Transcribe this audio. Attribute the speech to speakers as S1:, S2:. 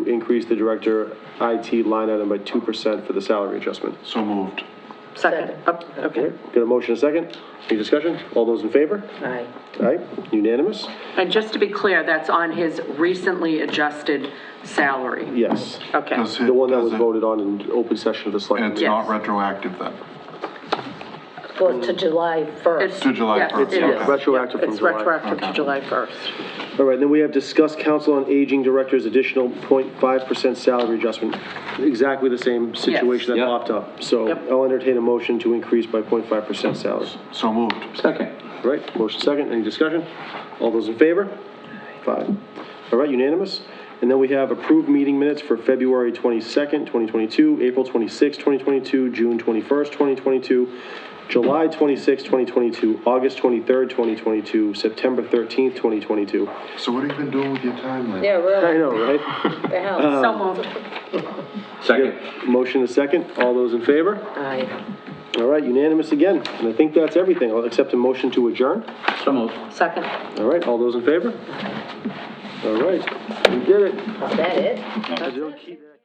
S1: increase the director IT line item by 2% for the salary adjustment.
S2: So moved.
S3: Second. Up- Okay.
S1: Get a motion, a second? Any discussion? All those in favor?
S3: Aye.
S1: Aye, unanimous?
S4: And just to be clear, that's on his recently adjusted salary.
S1: Yes.
S4: Okay.
S2: Does it-
S1: The one that was
S2: does it-
S1: voted on in open session of the
S2: And
S1: select.
S2: it's not
S4: Yes.
S2: retroactive then?
S3: Goes to July 1st.
S2: To July
S4: Yes,
S2: 1st,
S4: it
S2: okay.
S4: is.
S1: Retroactive from
S3: It's
S1: July.
S3: retroactive to July 1st.
S1: All right, then we have discussed council on aging director's additional 0.5% salary adjustment. Exactly the same situation that
S5: Yep.
S1: popped up. So
S3: Yep.
S1: I'll entertain a motion to increase by 0.5% salary.
S2: So moved.
S5: Second.
S1: All Right, motion second, any discussion? All those in favor? Five. All right, unanimous. And then we have approved meeting minutes for February 22nd, 2022, April 26th, 2022, June 21st, 2022, July 26th, 2022, August 23rd, 2022, September 13th, 2022.
S2: So what have you been doing with your time lately?
S3: Yeah,
S1: I
S3: really,
S1: know, right?
S3: the hell?
S4: So moved.
S5: Second.
S1: Motion a second, all those in favor?
S3: Aye.
S1: All right, unanimous again. And I think that's everything. I'll accept a motion to adjourn.
S5: So moved.
S3: Second.
S1: All right, all those in favor? All right, we did it.
S3: Is that it?
S1: They'll keep-